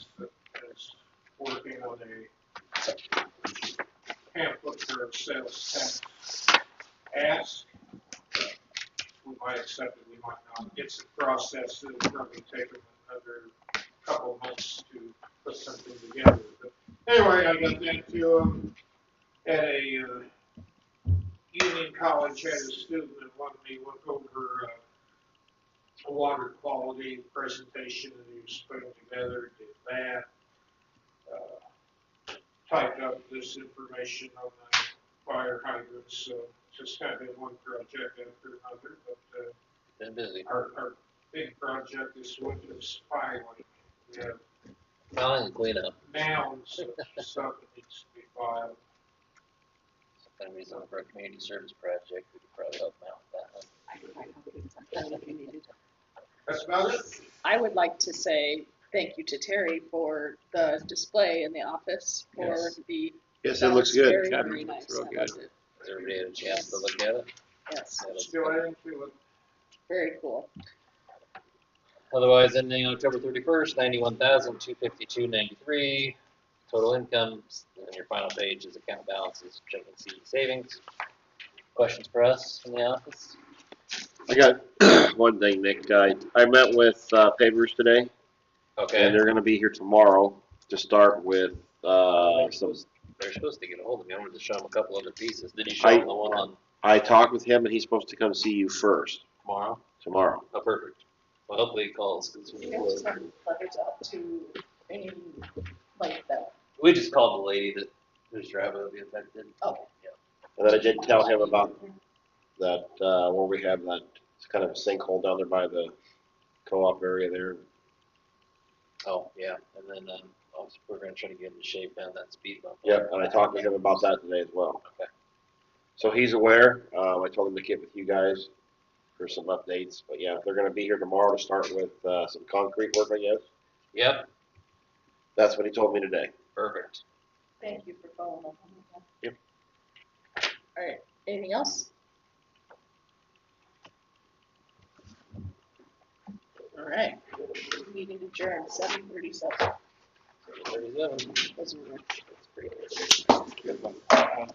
working on a pamphlet for sales tax ask. We might accept it, we might not. It's a process that will probably take another couple months to put something together. But Anyway, I got that to him at a, uh, Union College had a student that wanted me to look over, uh, a water quality presentation that he was putting together, did that. uh, Typed up this information on the fire hydrants, so just kind of been one project after another, but, uh, Been busy. our, our big project this winter is finally, we have Plowing cleanup. mounds of stuff that needs to be filed. Sometime he's on for a community service project. We could probably help him out with that one. That's about it. I would like to say thank you to Terry for the display in the office for Yes. the. Yes, it that looks was good. Very, God, very it nice. looks real I good. loved it. Has everybody had a chance to look at it? Yes, Yeah, that's Still good. adding to it. very cool. Otherwise, ending October thirty-first, ninety-one thousand, two fifty-two, ninety-three. Total income, and then your final page is account balances, checking CD savings. Questions for us in the office? I got one thing, Nick. I, I met with uh, pavers today, and Okay, they're going to be here tomorrow to start with uh, some. they're supposed to get a hold of me. I wanted to show them a couple other pieces. Did you show them the one on I talked with him, and he's supposed to come see you first tomorrow? tomorrow. Oh, perfect. Well, hopefully he calls. 'cause we- letters out to any, like that. We just called the lady that whose driver would be affected. Okay. And then I did tell him about that uh, where we have that it's kind of a sinkhole down there by the co-op area there. Oh, yeah, and then, um, obviously, we're gonna try to get him to shave down that speed bump. Yep, and I talked to him about that today as well. Okay. So he's aware. Um, I told him to get with you guys for some updates. But yeah, they're going to be here tomorrow to start with uh, some concrete work, I guess. Yep, That's what he told me today. perfect. Thank you for following up. Yep. All right, anything else? All right, meeting adjourned, seven thirty-seven. Thirty-seven. Those were- that's pretty good. Good one.